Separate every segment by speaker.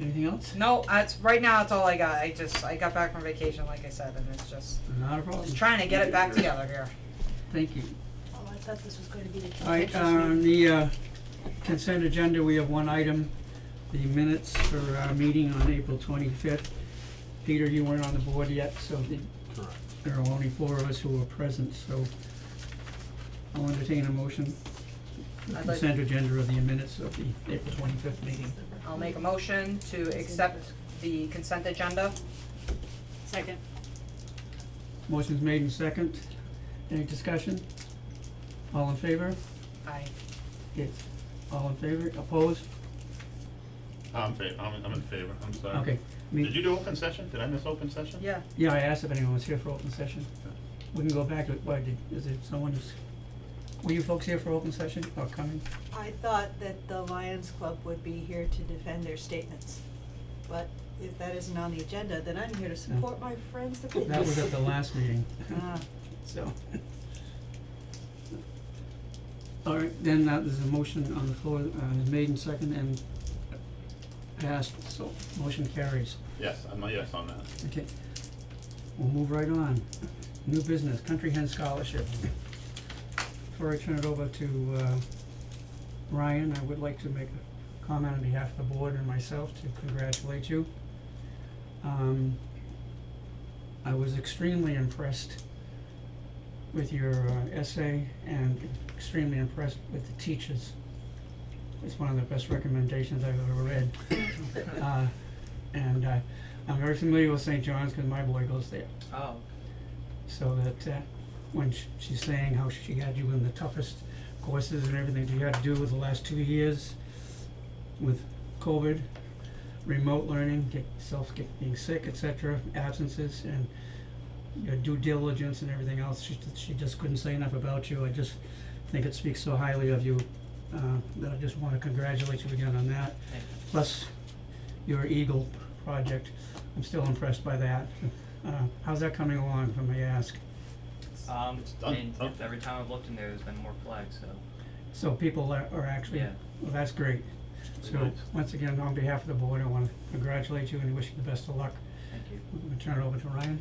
Speaker 1: Anything else?
Speaker 2: No, that's, right now, it's all I got, I just, I got back from vacation, like I said, and it's just,
Speaker 1: Not a problem.
Speaker 2: just trying to get it back together here.
Speaker 1: Thank you.
Speaker 3: Oh, I thought this was gonna be the.
Speaker 1: All right, on the uh, consent agenda, we have one item, the minutes for our meeting on April twenty-fifth. Peter, you weren't on the board yet, so the-
Speaker 4: Correct.
Speaker 1: there are only four of us who were present, so I'll entertain a motion. for
Speaker 2: I'd like-
Speaker 1: Consent agenda of the minutes of the April twenty-fifth meeting.
Speaker 2: I'll make a motion to accept the consent agenda.
Speaker 3: Second.
Speaker 1: Motion's made and second. Any discussion? All in favor?
Speaker 2: I,
Speaker 1: Yes. All in favor? Opposed?
Speaker 4: I'm fa- I'm, I'm in favor, I'm sorry.
Speaker 1: Okay. Me-
Speaker 4: Did you do open session? Did I miss open session?
Speaker 2: yeah,
Speaker 1: Yeah, I asked if anyone was here for open session. We can go back to, why did, is it someone who's, were you folks here for open session Oh, or coming?
Speaker 5: I thought that the Lions Club would be here to defend their statements, but if that isn't on the agenda, then I'm here to support my friends the
Speaker 1: That was
Speaker 5: Pitmans.
Speaker 1: at the last meeting,
Speaker 5: Ah,
Speaker 1: so. All right, then uh, there's a motion on the floor, uh, made and second and passed, so motion carries.
Speaker 4: Yes, I'm a yes on that.
Speaker 1: Okay, we'll move right on. New business, Country Hen Scholarship. Before I turn it over to uh, Ryan, I would like to make a comment on behalf of the board and myself to congratulate you. Um, I was extremely impressed with your uh, essay and extremely impressed with the teachers. It's one of the best recommendations I've ever read. Uh, And uh, I'm very familiar with St. John's because my boy goes there.
Speaker 6: Oh,
Speaker 1: So that uh, when sh- she's saying how she had you in the toughest courses and everything that you had to do with the last two years with COVID, remote learning, get yourself get being sick, etc., absences, and your due diligence and everything else, she she just couldn't say enough about you. I just think it speaks so highly of you uh, that I just want to congratulate you again on that.
Speaker 6: Thank
Speaker 1: Plus, your Eagle project, I'm still impressed by that. Uh, how's that coming along, if I may ask?
Speaker 6: um,
Speaker 4: It's done.
Speaker 6: and
Speaker 4: Okay.
Speaker 6: every time I've looked in there, there's been more flags, so.
Speaker 1: So people are, are actually,
Speaker 6: Yeah.
Speaker 1: well, that's great. So,
Speaker 4: Nice.
Speaker 1: once again, on behalf of the board, I wanna congratulate you and wish you the best of luck.
Speaker 6: Thank you.
Speaker 1: I'm gonna turn it over to Ryan.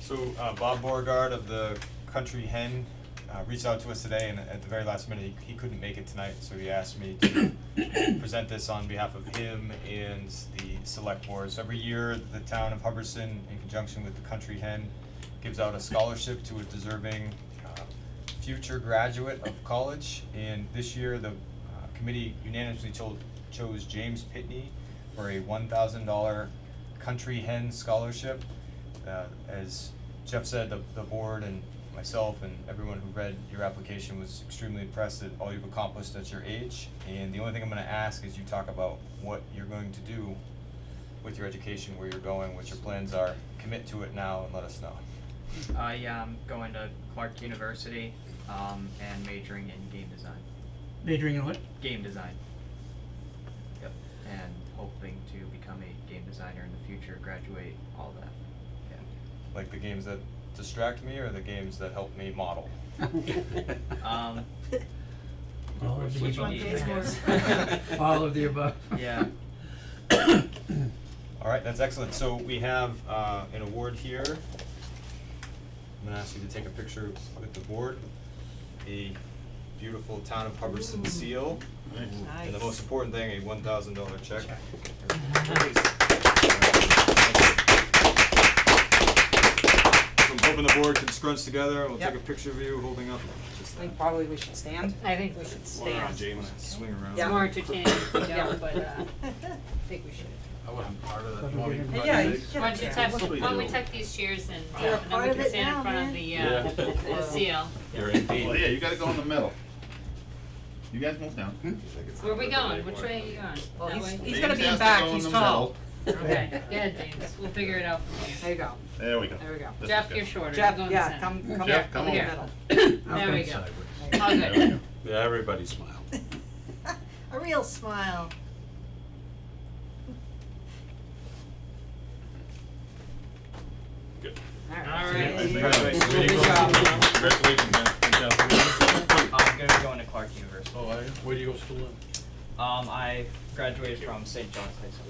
Speaker 7: So uh, Bob Beauregard of the Country Hen uh, reached out to us today, and at the very last minute, he, he couldn't make it tonight, so he asked me to present this on behalf of him and the Select Board. So every year, the town of Hubbardston, in conjunction with the Country Hen, gives out a scholarship to a deserving uh, future graduate of college. And this year, the uh, committee unanimously cho- chose James Pitney for a one thousand dollar Country Hen scholarship uh, as Jeff said, the, the board and myself and everyone who read your application was extremely impressed at all you've accomplished at your age. And the only thing I'm gonna ask is you talk about what you're going to do with your education, where you're going, what your plans are. Commit to it now and let us know.
Speaker 6: I am going to Clark University, um, and majoring in game design,
Speaker 1: Majoring in what?
Speaker 6: game design. Yep, and hoping to become a game designer in the future, graduate, all that, yeah.
Speaker 7: Like the games that distract me or the games that help me model?
Speaker 6: Um,
Speaker 1: All of the
Speaker 6: Which
Speaker 1: above.
Speaker 6: one pays
Speaker 3: more?
Speaker 1: All of the above.
Speaker 6: yeah,
Speaker 7: All right, that's excellent. So we have uh, an award here. I'm gonna ask you to take a picture with the board. The beautiful town of Hubbardston seal.
Speaker 4: Nice.
Speaker 5: nice.
Speaker 7: And the most important thing, a one thousand dollar check. So I'm hoping the board can scrunch together, and we'll take a
Speaker 2: Yep.
Speaker 7: picture of you holding up just
Speaker 2: I
Speaker 7: that.
Speaker 2: think probably we should stand.
Speaker 3: I think we should
Speaker 4: One around
Speaker 3: stand.
Speaker 4: James.
Speaker 7: Swing around.
Speaker 3: It's more entertaining if we
Speaker 2: Yeah.
Speaker 3: don't, but, uh, I think we should.
Speaker 4: I wasn't part of
Speaker 1: that. You want me to
Speaker 2: Yeah, you get
Speaker 3: Why
Speaker 2: it
Speaker 3: don't you
Speaker 2: there.
Speaker 3: tuck,
Speaker 4: What do we
Speaker 3: why don't we
Speaker 4: do?
Speaker 3: tuck these chairs and,
Speaker 5: You're a
Speaker 3: uh, and then
Speaker 5: part
Speaker 3: we
Speaker 5: of
Speaker 3: can
Speaker 5: it
Speaker 3: stand
Speaker 5: now,
Speaker 3: in front
Speaker 5: man.
Speaker 3: of the, uh, the seal.
Speaker 7: You're in
Speaker 4: Well, yeah, you gotta go in the middle. You guys move down.
Speaker 3: Where are we going? Which way are you going?
Speaker 2: Well,
Speaker 3: That
Speaker 2: Hmm? he's,
Speaker 3: way?
Speaker 2: he's gonna
Speaker 4: James
Speaker 2: be in
Speaker 4: has to
Speaker 2: back,
Speaker 4: go in
Speaker 2: he's
Speaker 4: the
Speaker 2: tall.
Speaker 3: Okay, yeah, James, we'll figure it out from
Speaker 2: There
Speaker 3: here.
Speaker 2: you go,
Speaker 4: middle. There we go.
Speaker 2: there we go.
Speaker 4: This is
Speaker 3: Jeff,
Speaker 4: good.
Speaker 3: you're shorter, you
Speaker 2: Jeff,
Speaker 3: go in the
Speaker 2: yeah,
Speaker 3: center.
Speaker 2: come, come
Speaker 4: Jeff,
Speaker 2: here,
Speaker 4: come
Speaker 2: in the
Speaker 4: over.
Speaker 2: middle.
Speaker 3: There we go, all
Speaker 4: There we
Speaker 3: good.
Speaker 4: go.
Speaker 8: Yeah, everybody smiled.
Speaker 5: A real smile.
Speaker 3: All
Speaker 4: Thank you.
Speaker 3: right.
Speaker 7: Congratulations.
Speaker 2: Good job.
Speaker 4: Congratulations, man.
Speaker 6: I'm gonna go into Clark University.
Speaker 8: Oh, I, where do you go school in?
Speaker 6: Um, I graduated from St. John's High School.